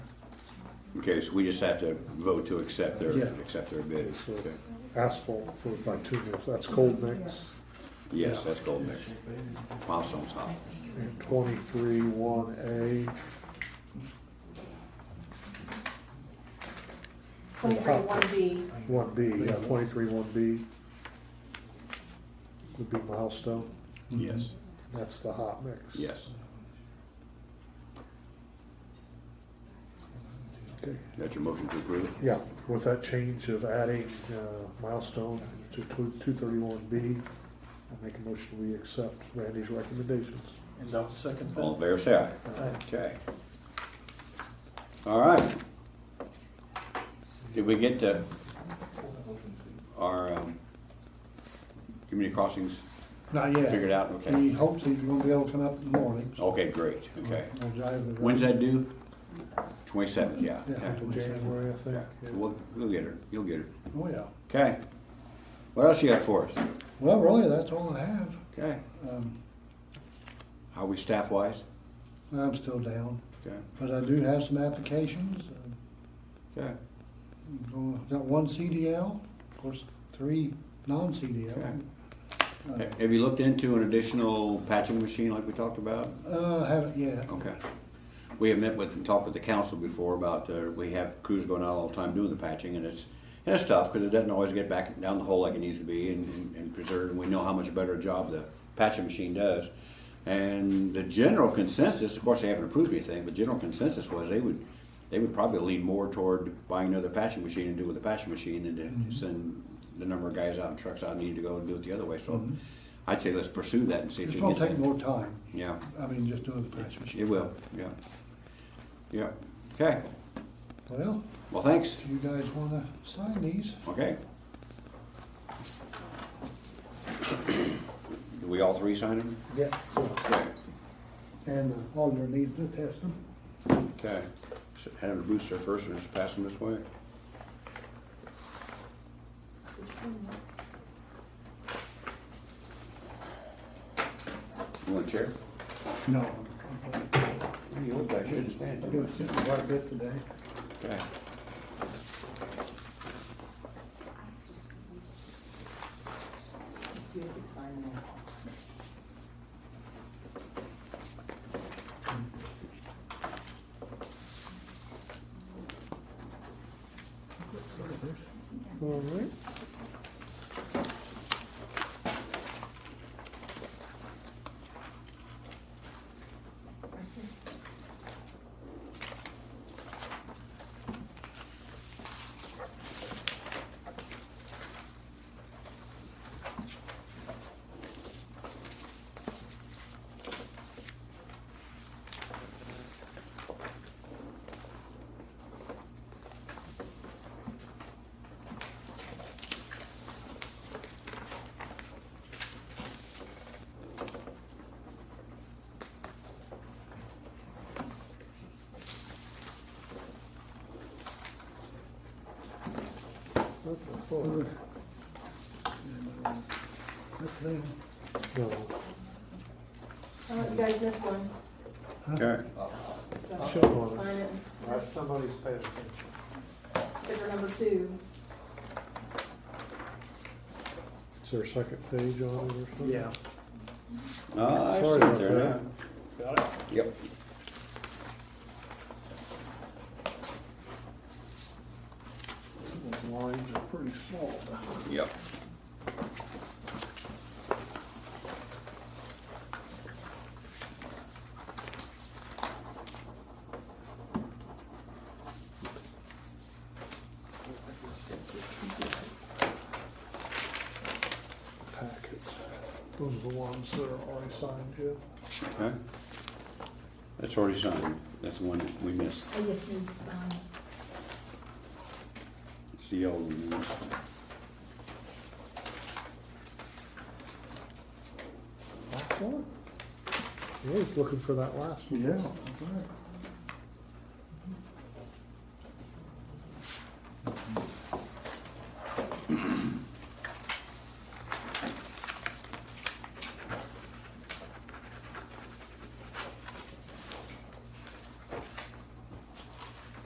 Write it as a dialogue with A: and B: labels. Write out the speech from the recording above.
A: Okay, so we just have to vote to accept their,
B: Yeah.
A: accept their bid.
B: So-
A: Okay.
B: asphalt for like two years, that's cold mix,
A: Yes, that's gold mix. Milestone's hot.
B: and twenty-three one A,
C: Twenty-three one B,
B: one B, yeah, twenty-three one B would be milestone,
A: Yes,
B: that's the hot mix.
A: yes.
B: Okay.
A: That's your motion to approve?
B: Yeah, with that change of adding uh, milestone to two thirty-one B, I make a motion we accept Randy's recommendations.
D: And I'll second
A: All in
D: that.
A: favor, say aye.
D: Aye.
A: Okay. All right. Did we get to our um, community crossings?
D: Not yet.
A: Figured out, okay.
D: He hopes he's gonna be able to come up in the morning.
A: Okay, great, okay.
D: We'll drive the road.
A: When's that due? Twenty-seventh, yeah.
D: Yeah,
A: Yeah.
D: twenty-
B: January, I think.
A: Yeah. We'll, we'll get her, you'll get her.
D: Oh, yeah.
A: Okay. What else you got for us?
D: Well, really, that's all I have.
A: Okay.
D: Um,
A: How are we staff-wise?
D: I'm still down,
A: Okay,
D: but I do have some applications. Um,
A: okay,
D: Well, Got one CDL, of course, three non-CDL.
A: Ha- Have you looked into an additional patching machine like we talked about?
D: Uh, haven't yet.
A: Okay. We have met with and talked with the council before about, uh, we have crews going out all the time doing the patching and it's, and it's tough because it doesn't always get back down the hole like it needs to be and, and- and preserved. And we know how much better a job the patching machine does. And the general consensus, of course, they haven't approved anything, but general consensus was they would, they would probably lean more toward buying another patching machine and do with the patching machine than
D: Mm-hmm.
A: to send the number of guys out and trucks out needed to go and do it the other way. So I'd say let's pursue that and see if
D: Mm-hmm. It's
A: we can
D: gonna
A: get.
D: take
A: that.
D: more time.
A: Yeah.
D: I mean, just doing the patch machine.
A: It will, yeah. Yeah, okay,
D: Well,
A: well, thanks,
D: do you guys wanna sign these?
A: okay. Do we all three sign them?
D: Yeah.
A: Okay.
D: And uh, the auditor needs to test them.
A: Okay, So hand them to Brewster first and just pass them this way. You want a chair?
D: No.
A: You look like you shouldn't stand
D: I've been sitting quite a bit today.
A: Okay.
C: you have to sign that.
B: All right.
D: That's them.
B: So,
C: Oh, you guys missed one,
A: Okay,
C: so
B: show on it.
C: sign it,
E: That's somebody's paying attention.
C: sticker number two.
B: Is there a second page on it or something?
A: ah, I see
B: Sorry
A: it
B: about
A: there now.
B: that.
E: Got it?
A: Yep.
E: Some of those lines are pretty small.
A: Yep.
B: Packets. Those are the ones that are already signed, Jim.
A: Okay. That's already signed. That's the one that we missed.
C: I just need to sign it.
A: It's the yellow one. we missed.
B: Last one? Yeah, he's looking for that last one.
D: Yeah, that's right.